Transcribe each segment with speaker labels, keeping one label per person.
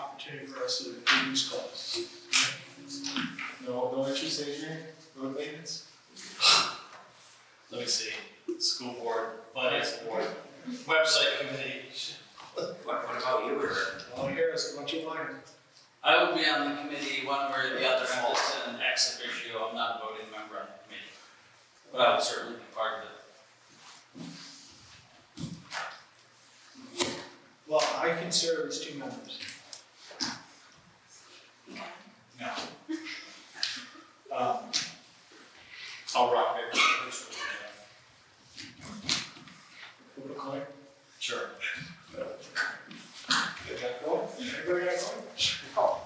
Speaker 1: opportunity for us to reduce costs.
Speaker 2: No, no interest, Adrian, road maintenance?
Speaker 3: Let me see, school board, finance board, website committee.
Speaker 4: What, what about you or?
Speaker 1: Well, Harris, what you learned?
Speaker 5: I will be on the committee one way or the other, I'm just an ex officio, I'm not a voting member on the committee. But I will certainly be part of it.
Speaker 1: Well, I can serve as two members.
Speaker 2: Um, I'll rock it.
Speaker 1: Vote a coin.
Speaker 3: Sure.
Speaker 2: Get that going.
Speaker 1: Everybody got a coin?
Speaker 6: Oh.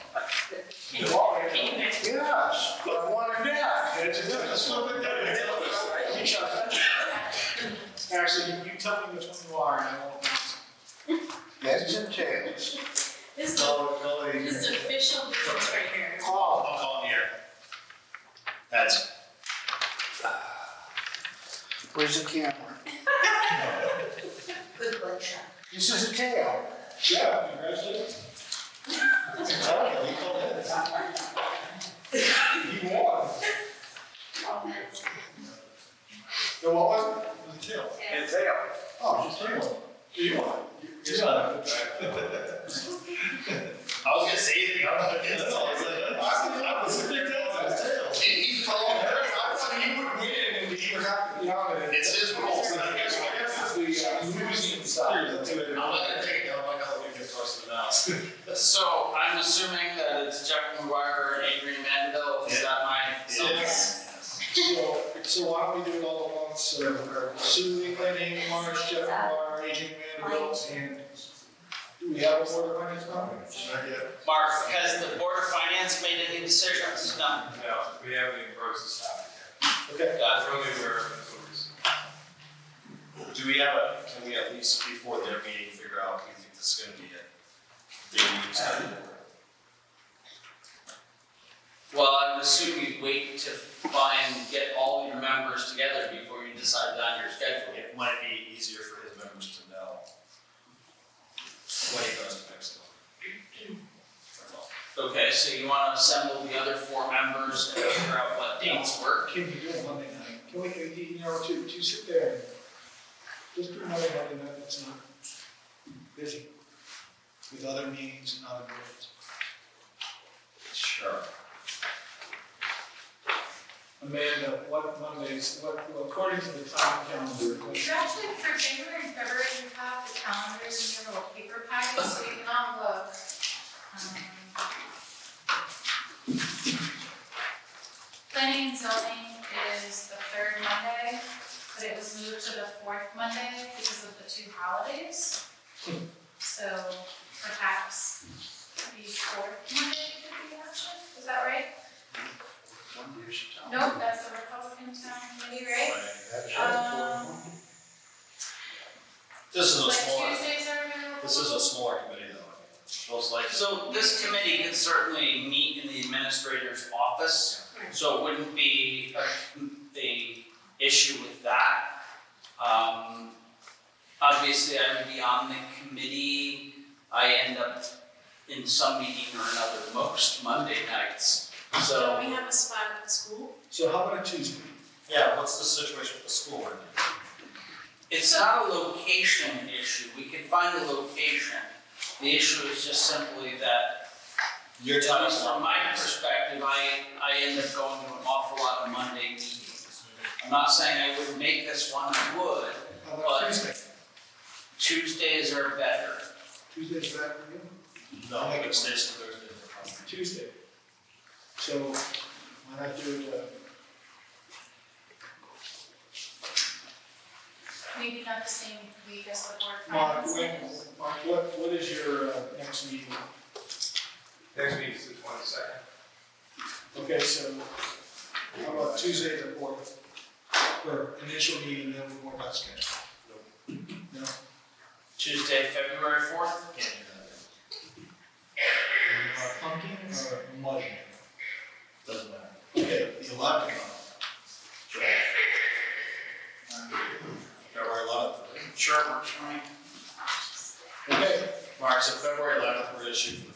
Speaker 2: Yes, but I want it now.
Speaker 1: That's it.
Speaker 2: That's what we're doing. You shot that.
Speaker 1: Actually, you- you tell me which one you are and I won't announce.
Speaker 2: That's your chance.
Speaker 6: This is,
Speaker 2: No, no, Adrian.
Speaker 6: this is official business right here.
Speaker 3: I'll
Speaker 2: Call.
Speaker 3: call it here. That's,
Speaker 4: Where's the camera?
Speaker 6: Good workshop.
Speaker 2: This is a tail. Yeah, congratulations. Exactly, he called it. He won. No, what was it? It was a tail.
Speaker 4: And tail.
Speaker 2: Oh, it's a tail. You won. You won.
Speaker 3: I was gonna say anything, I don't
Speaker 2: No, no,
Speaker 3: know.
Speaker 2: it's like, I was, I was, big tails, I was tail.
Speaker 3: He, he's calling her, I thought he would win, and he would have,
Speaker 2: You know, and it-
Speaker 3: it's his rules, I guess, I guess.
Speaker 2: it's the, uh, losing side. That's what it
Speaker 3: I'm
Speaker 2: is.
Speaker 3: not gonna take it down, I'm not gonna leave it close to the mouse.
Speaker 5: So I'm assuming that it's Jeff McGuire and Adrian Mandel, is that my?
Speaker 6: Yes.
Speaker 1: So, so why don't we do it all at once, so we're Sue, Lenny, Marsh, Jeff, Mar, Agent Mandel, and do we have a board of finance member?
Speaker 2: Not yet.
Speaker 5: Mark, has the Board of Finance made any decisions? No.
Speaker 4: No, we haven't even broached this topic yet.
Speaker 1: Okay.
Speaker 5: Got it.
Speaker 4: That's really where it's focused.
Speaker 3: Do we have a, can we at least before their meeting figure out, do you think this is gonna be a, they need
Speaker 5: Well, I would assume you'd wait to find, get all your members together before you decided on your schedule.
Speaker 3: It might be easier for his members to know when he goes to Mexico. That's all.
Speaker 5: Okay, so you wanna assemble the other four members and figure out what dates work?
Speaker 1: Can you do it Monday night? Can we, you know, to, to sit there, just do another Monday night, it's not busy with other meetings and other boards.
Speaker 3: Sure.
Speaker 1: Amanda, what Mondays, what, well, according to the time calendar,
Speaker 6: You actually, for January and February, you have the calendars in your little paper packet, so you can all look. Um, Planning and zoning is the third Monday, but it was moved to the fourth Monday because of the two holidays. So perhaps the fourth Monday could be an option, is that right? Nope, that's the Republican town committee, right? Um,
Speaker 3: This is a
Speaker 6: But
Speaker 3: smaller,
Speaker 6: Tuesdays are available.
Speaker 3: this is a smaller committee though, most likely.
Speaker 5: So this committee could certainly meet in the administrator's office, so it wouldn't be a, a issue with that. Um, obviously, I would be on the committee, I end up in some meeting or another most Monday nights. So,
Speaker 6: we have a spot at the school?
Speaker 1: so how about a Tuesday?
Speaker 3: Yeah, what's the situation with the school right now?
Speaker 5: It's not a location issue, we could find a location. The issue is just simply that,
Speaker 3: Your
Speaker 5: at
Speaker 3: time is
Speaker 5: least
Speaker 3: not
Speaker 5: from my perspective, I, I end up going to an awful lot of Monday meetings. I'm not saying I wouldn't make this one, I would,
Speaker 1: How about
Speaker 5: What?
Speaker 1: Tuesday?
Speaker 5: Tuesdays are better.
Speaker 1: Tuesday's back for you?
Speaker 3: No, I think it stays to Thursday. no problem.
Speaker 1: Tuesday. So why not do it, uh,
Speaker 6: Maybe not the same week as the board
Speaker 1: Mark,
Speaker 6: finance.
Speaker 1: when, Mark, what, what is your uh, next meeting?
Speaker 4: Next week is the twenty-second.
Speaker 1: Okay, so how about Tuesday the fourth? Or initial meeting, then we'll work out schedule.
Speaker 5: Tuesday, February fourth?
Speaker 3: Can't do that.
Speaker 1: Uh, Pumpkin or mud?
Speaker 3: Doesn't matter. Okay, the eleventh. Sure. February eleventh.
Speaker 5: Sure, works for me.
Speaker 1: Okay,
Speaker 3: Mark, so February eleventh, we're gonna shoot for the